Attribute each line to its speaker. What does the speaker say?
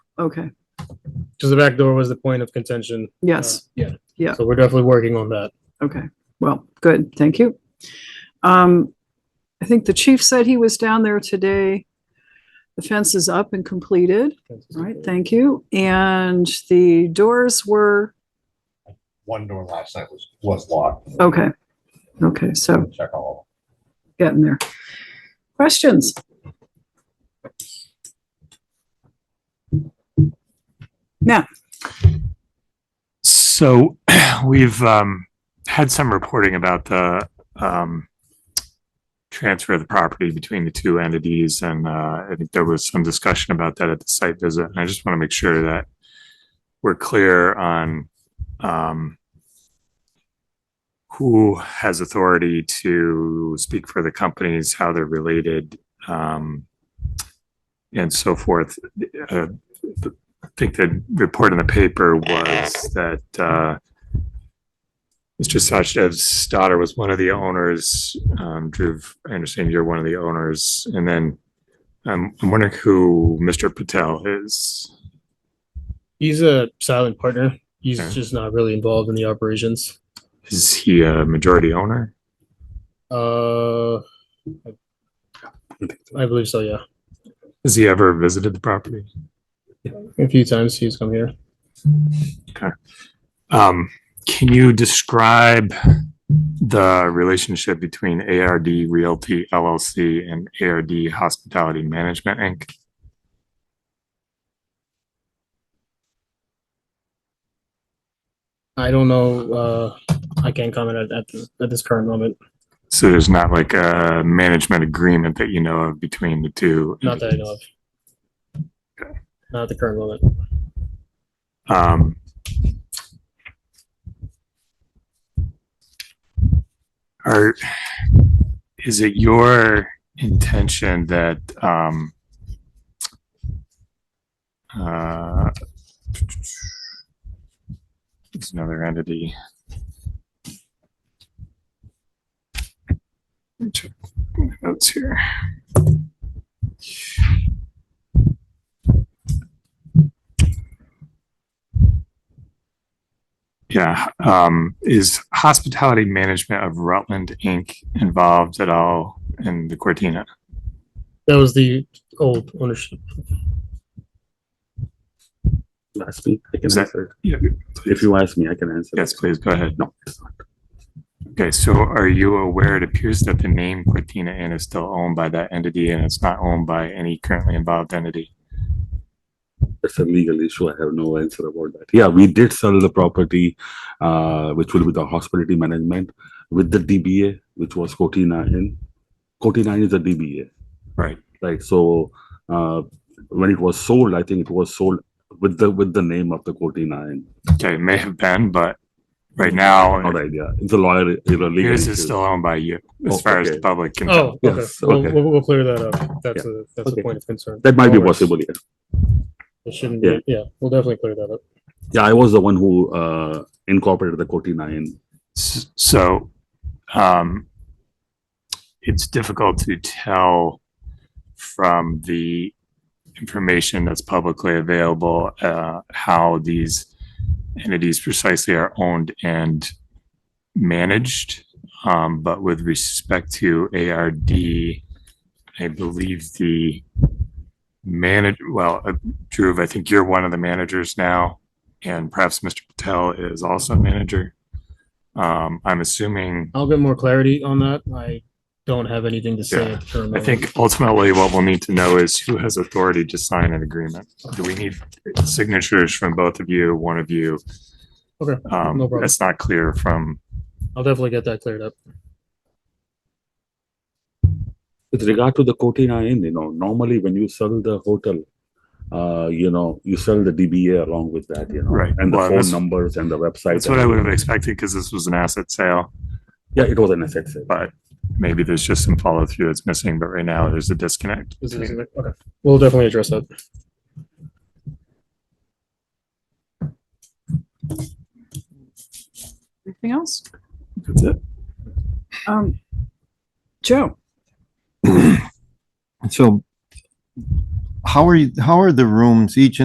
Speaker 1: Okay,
Speaker 2: Because the back door was the point of contention.
Speaker 1: yes, Yeah.
Speaker 2: So we're definitely working on that.
Speaker 1: okay. Well, good, thank you. Um, I think the chief said he was down there today. The fence is up and completed, All right? Thank you. And the doors were,
Speaker 3: one door last night was, was locked.
Speaker 1: okay. Okay, so
Speaker 3: Check all
Speaker 1: getting there. Questions?
Speaker 4: So we've um, had some reporting about the um, transfer of the property between the two entities, and uh, I think there was some discussion about that at the site visit. And I just want to make sure that we're clear on um, who has authority to speak for the companies, how they're related, um, and so forth. Uh, I think the report in the paper was that uh, Mr. Sachdev's daughter was one of the owners. Um, Drew, I understand you're one of the owners. And then um, I'm wondering who Mr. Patel is.
Speaker 2: He's a silent partner. He's
Speaker 4: Okay.
Speaker 2: just not really involved in the operations.
Speaker 4: Is he a majority owner?
Speaker 2: Uh, I believe so. Yeah,
Speaker 4: Has he ever visited the property?
Speaker 2: a few times he's come here.
Speaker 4: Um, can you describe the relationship between ARD Realty LLC and ARD Hospitality Management Inc.?
Speaker 2: I don't know. Uh, I can't comment at at, this, at this current moment.
Speaker 4: So there's not like a management agreement that you know of between the two?
Speaker 2: Not that I know of. Not at the current moment.
Speaker 4: Um, Are, is it your intention that, um, uh, there's another entity? Let me check my Notes here. Yeah, um, is hospitality management of Rutland Inc. involved at all in the Cortina?
Speaker 2: That was the old ownership.
Speaker 5: last week. I
Speaker 4: Is
Speaker 5: can
Speaker 4: that-
Speaker 5: answer.
Speaker 4: Yeah.
Speaker 5: If you ask me, I can answer.
Speaker 4: Yes, please, go ahead.
Speaker 5: No, it's not.
Speaker 4: Okay, so are you aware, it appears that the name Cortina Inn is still owned by that entity and it's not owned by any currently involved entity?
Speaker 5: It's a legal issue. I have no answer about that. Yeah, we did sell the property, uh, which will be the hospitality management with the DBA, which was Cortina Inn. Cortina Inn is a DBA,
Speaker 4: Right.
Speaker 5: right? So, uh, when it was sold, I think it was sold with the, with the name of the Cortina Inn.
Speaker 4: Okay, it may have been, but right now,
Speaker 5: All
Speaker 4: it
Speaker 5: right, yeah, it's a lawyer, it's a legal
Speaker 4: appears it's
Speaker 5: issue.
Speaker 4: still owned by you,
Speaker 5: Oh,
Speaker 4: as far as the
Speaker 5: okay.
Speaker 4: public can tell.
Speaker 2: Oh, okay.
Speaker 5: Yes,
Speaker 2: We'll,
Speaker 5: okay.
Speaker 2: we'll, we'll clear that up. That's a that's
Speaker 5: Okay.
Speaker 2: a point of concern.
Speaker 5: That might be
Speaker 2: No worries.
Speaker 5: possible, yeah.
Speaker 2: It shouldn't.
Speaker 5: Yeah.
Speaker 2: Be, yeah, we'll definitely clear that up.
Speaker 5: Yeah, I was the one who, uh, incorporated the Cortina Inn.
Speaker 4: S- So, um, it's difficult to tell from the information that's publicly available, uh, how these entities precisely are owned and managed. Um, but with respect to ARD, I believe the manage, well, uh, Dhruv, I think you're one of the managers now, and perhaps Mr. Patel is also a manager. Um, I'm assuming,
Speaker 2: I'll get more clarity on that. I don't have anything to say
Speaker 4: Yeah.
Speaker 2: at the current
Speaker 4: I
Speaker 2: moment.
Speaker 4: think ultimately what we'll need to know is who has authority to sign an agreement. Do we need signatures from both of you, one of you?
Speaker 2: Okay,
Speaker 4: Um,
Speaker 2: no problem.
Speaker 4: that's not clear from,
Speaker 2: I'll definitely get that cleared up.
Speaker 5: With regard to the Cortina Inn, you know, normally when you sell the hotel, uh, you know, you sell the DBA along with that, you know,
Speaker 4: Right.
Speaker 5: and the
Speaker 4: Well,
Speaker 5: phone
Speaker 4: that's-
Speaker 5: numbers and the website.
Speaker 4: that's what I would have expected because this was an asset sale,
Speaker 5: Yeah, it was an asset sale.
Speaker 4: but maybe there's just some follow through that's missing, but right now there's a disconnect.
Speaker 2: This
Speaker 4: between-
Speaker 2: is- okay. We'll definitely address that.
Speaker 1: Anything else?
Speaker 4: That's it.
Speaker 1: Um, Joe?
Speaker 6: So how are you, how are the rooms, each